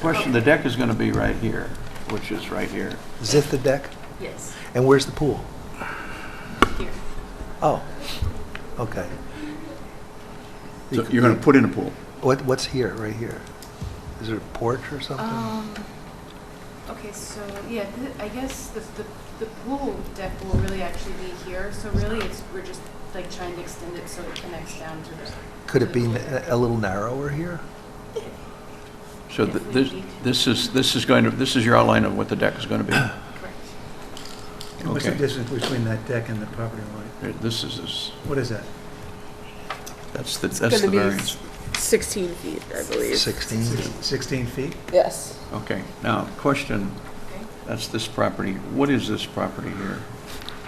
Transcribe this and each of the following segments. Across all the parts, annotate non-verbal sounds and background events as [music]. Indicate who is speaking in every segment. Speaker 1: question, the deck is going to be right here, which is right here.
Speaker 2: Is it the deck?
Speaker 3: Yes,
Speaker 2: And where's the pool?
Speaker 3: here.
Speaker 2: Oh, okay.
Speaker 1: So you're going to put in a pool.
Speaker 2: What, what's here, right here? Is there a porch or something?
Speaker 3: Um, okay, so, yeah, th- I guess the, the, the pool deck will really actually be here, so really it's, we're just like trying to extend it so it connects down to the.
Speaker 2: Could
Speaker 3: to
Speaker 2: it
Speaker 3: the
Speaker 2: be
Speaker 3: pool
Speaker 2: n-
Speaker 3: deck.
Speaker 2: a little narrower here?
Speaker 1: So th-
Speaker 3: If we
Speaker 1: this,
Speaker 3: need to.
Speaker 1: this is, this is going to, this is your outline of what the deck is going to [clears throat]
Speaker 2: uh,
Speaker 1: be.
Speaker 3: Correct.
Speaker 4: And What's the
Speaker 1: Okay.
Speaker 4: distance between that deck and the property line?
Speaker 1: This is- is,
Speaker 4: What is that?
Speaker 1: that's the,
Speaker 5: It's
Speaker 1: that's the
Speaker 5: going to be
Speaker 1: variance.
Speaker 5: 16 feet, I believe.
Speaker 2: 16?
Speaker 4: Six- 16 feet?
Speaker 5: Yes.
Speaker 1: Okay, now, question,
Speaker 3: Okay.
Speaker 1: that's this property. What is this property here?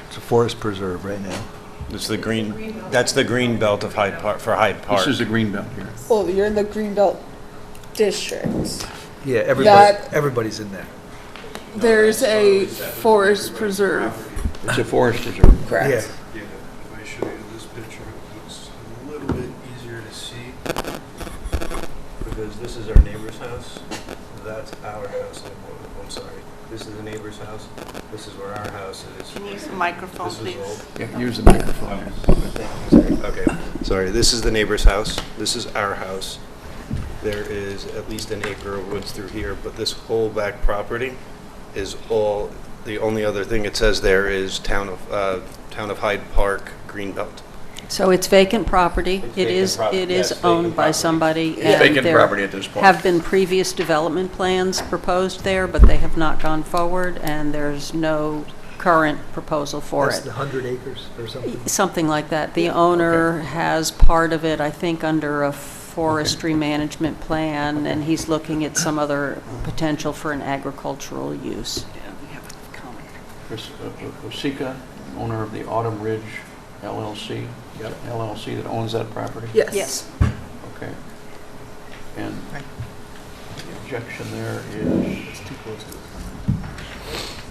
Speaker 2: It's a forest preserve right now.
Speaker 6: It's the green, that's the green belt of Hyde Park, for Hyde Park.
Speaker 1: This is the green belt here.
Speaker 5: Well, you're in the Greenbelt district.
Speaker 2: Yeah, everybody,
Speaker 5: That-
Speaker 2: everybody's in there.
Speaker 5: There's a forest preserve,
Speaker 1: It's a forest reserve.
Speaker 2: Yeah,
Speaker 5: correct?
Speaker 7: Yeah, if I show you this picture, it's a little bit easier to see because this is our neighbor's house. That's our house. I'm- I'm sorry. This is the neighbor's house. This is where our house is.
Speaker 8: Can you use the microphone,
Speaker 7: This is
Speaker 8: please?
Speaker 1: Yeah, Use the microphone.
Speaker 7: old. Okay, sorry. This is the neighbor's house. This is our house. There is at least an acre of woods through here, but this whole back property is all, the only other thing it says there is town of, uh, town of Hyde Park, Greenbelt.
Speaker 9: So it's vacant property.
Speaker 7: It's
Speaker 9: It
Speaker 7: vacant
Speaker 9: is,
Speaker 7: property,
Speaker 9: it
Speaker 7: yes,
Speaker 9: is
Speaker 7: vacant
Speaker 9: owned by
Speaker 7: property.
Speaker 9: somebody.
Speaker 1: It's
Speaker 9: and
Speaker 1: vacant
Speaker 9: there
Speaker 1: property at this point.
Speaker 9: Have been previous development plans proposed there, but they have not gone forward, and there's no current proposal for
Speaker 2: that's
Speaker 9: it.
Speaker 2: the 100 acres or something.
Speaker 9: Something like that. The owner has part of it, I think, under a forestry management plan, and he's looking at some other potential for an agricultural use.
Speaker 1: Chris uh, uh, Osika, owner of the Autumn Ridge LLC. You got an LLC that owns that property?
Speaker 9: Yes.
Speaker 1: Okay. And the objection there is,
Speaker 4: It's too close to the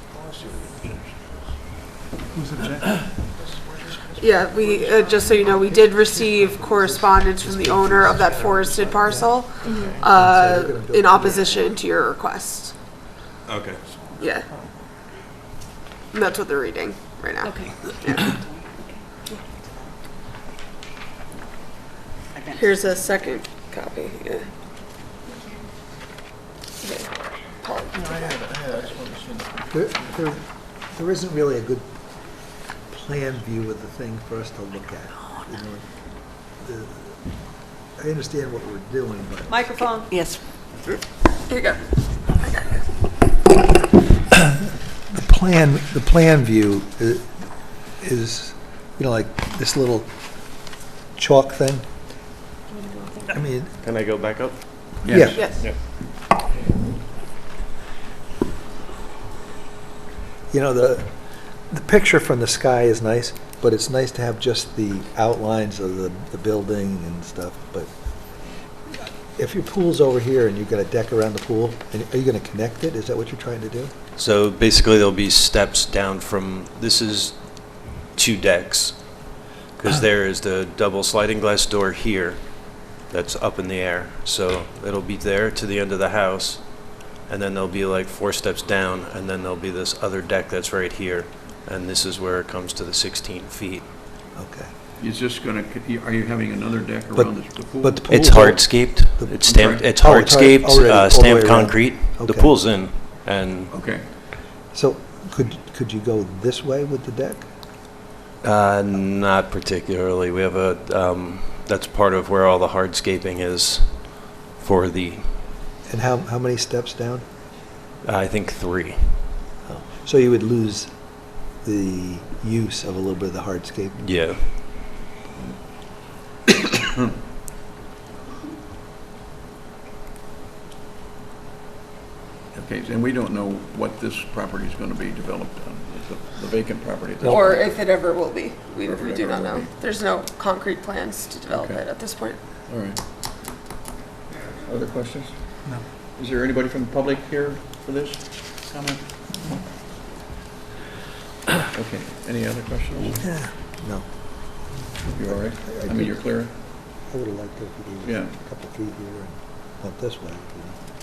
Speaker 8: Yeah, we, uh, just so you know, we did receive correspondence from the owner of that forested parcel uh, in opposition to your request.
Speaker 7: Okay.
Speaker 8: Yeah. And that's what they're reading right now.
Speaker 3: Okay.
Speaker 8: Here's a second copy. Yeah.
Speaker 2: There, there- there isn't really a good plan view of the thing for us to look at. you know. The- I understand what we're doing, but
Speaker 9: Microphone? Yes.
Speaker 8: Here you go.
Speaker 2: the plan, the plan view i- is, you know, like this little chalk thing. I mean,
Speaker 7: Can I go back up?
Speaker 1: yes.
Speaker 2: yeah,
Speaker 8: Yes.
Speaker 2: you know, the, the picture from the sky is nice, but it's nice to have just the outlines of the, the building and stuff, but if your pool's over here and you've got a deck around the pool, and are you gonna connect it? Is that what you're trying to do?
Speaker 6: So basically, there'll be steps down from, this is two decks, because there is the double sliding glass door here that's up in the air. So it'll be there to the end of the house, and then there'll be like four steps down, and then there'll be this other deck that's right here, and this is where it comes to the 16 feet.
Speaker 2: Okay.
Speaker 1: Is this going to, are you having another deck
Speaker 2: But-
Speaker 1: around this- the pool?
Speaker 2: but the pool-
Speaker 6: It's hardscaped, it's stamped, it's
Speaker 2: Oh, it's hard-
Speaker 6: hardscaped,
Speaker 2: already, all
Speaker 6: uh,
Speaker 2: the
Speaker 6: stamped
Speaker 2: way around.
Speaker 6: concrete. The
Speaker 2: Okay.
Speaker 6: pool's in, and
Speaker 1: Okay.
Speaker 2: So, could, could you go this way with the deck?
Speaker 6: Uh, not particularly. We have a, um, that's part of where all the hardscaping is for the,
Speaker 2: And how, how many steps down?
Speaker 6: I think, three.
Speaker 2: So you would lose the use of a little bit of the hardscape.
Speaker 6: Yeah.
Speaker 1: Okay, and we don't know what this property is going to be developed on, the- the vacant property. at this
Speaker 3: Or
Speaker 1: point.
Speaker 3: if it ever will be. We,
Speaker 1: Or if it
Speaker 3: we do
Speaker 1: ever
Speaker 3: not
Speaker 1: will
Speaker 3: know.
Speaker 1: be.
Speaker 3: There's no concrete plans to develop
Speaker 1: Okay.
Speaker 3: it at this point.
Speaker 1: All right. Other questions? No. Is there anybody from the public here for this comment? Okay, any other questions?
Speaker 2: Yeah. No,
Speaker 1: You all right?
Speaker 2: I
Speaker 1: I mean, you're clear?
Speaker 2: I would have liked it if you gave it
Speaker 1: Yeah.
Speaker 2: a couple feet here and went this way. you know.